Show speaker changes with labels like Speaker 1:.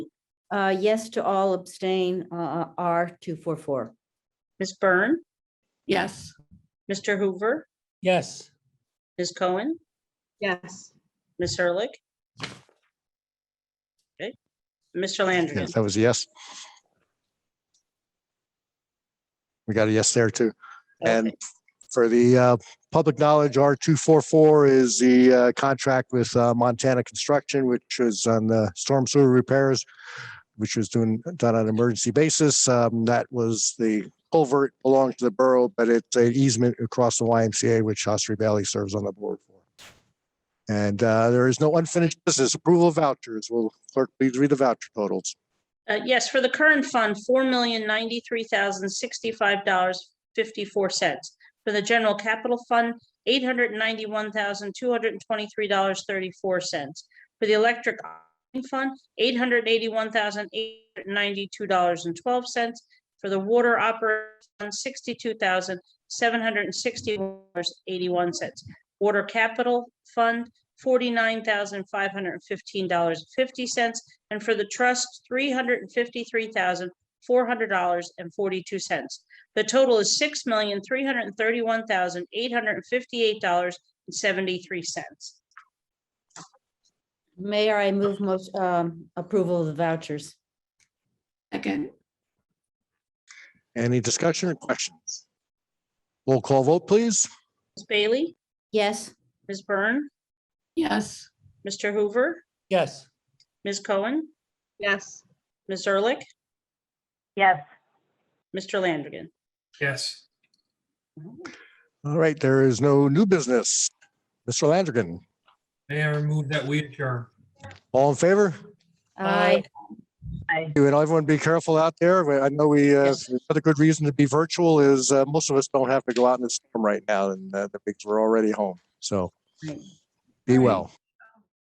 Speaker 1: Uh, yes to all abstain, uh, R two four four.
Speaker 2: Ms. Byrne,
Speaker 3: Yes.
Speaker 2: Mr. Hoover,
Speaker 4: yes,
Speaker 2: Ms. Cohen,
Speaker 5: yes,
Speaker 2: Ms. Hurlick. Okay, Mr. Landry,
Speaker 6: Yes, that was a yes. We got a yes there too. And
Speaker 2: Okay.
Speaker 6: for the uh, public knowledge, R two four four is the uh, contract with uh, Montana Construction, which is on the storm sewer repairs, which was doing, done on an emergency basis. Um, That was the culvert belonged to the borough, but it's an easement across the YMCA, which Shasbury Valley serves on the board for. And uh, there is no unfinished business. Approval of vouchers. Will clerk please read the voucher totals?
Speaker 2: Uh, yes, for the current fund, four million ninety-three thousand sixty-five dollars fifty-four cents. For the general capital fund, eight hundred ninety-one thousand two hundred twenty-three dollars thirty-four cents. For the electric operating fund, eight hundred eighty-one thousand eight hundred ninety-two dollars and twelve cents. For the water operating fund, sixty-two thousand seven hundred sixty-one dollars eighty-one cents. Water capital fund, forty-nine thousand five hundred fifteen dollars fifty cents. And for the trust, three hundred and fifty-three thousand, four hundred dollars and forty-two cents. The total is six million, three hundred and thirty-one thousand, eight hundred and fifty-eight dollars and seventy-three cents.
Speaker 1: Mayor, I move most, um, approval of the vouchers.
Speaker 3: Second,
Speaker 6: Any discussion or questions? Roll call vote, please.
Speaker 2: Ms. Bailey,
Speaker 1: Yes,
Speaker 2: Ms. Byrne,
Speaker 3: yes.
Speaker 2: Mr. Hoover,
Speaker 4: yes,
Speaker 2: Ms. Cohen,
Speaker 5: yes,
Speaker 2: Ms. Ehrlich,
Speaker 7: yes,
Speaker 2: Mr. Landrigan.
Speaker 8: yes,
Speaker 6: All right, there is no new business. Mr. Landrigan,
Speaker 8: Mayor, move that we adjourn.
Speaker 6: all in favor?
Speaker 1: I,
Speaker 7: I,
Speaker 6: You and everyone be careful out there. We- I know we, uh,
Speaker 2: Yes.
Speaker 6: another good reason to be virtual is uh, most of us don't have to go out in the storm right now and uh, the pigs were already home. So
Speaker 2: Right.
Speaker 6: be well.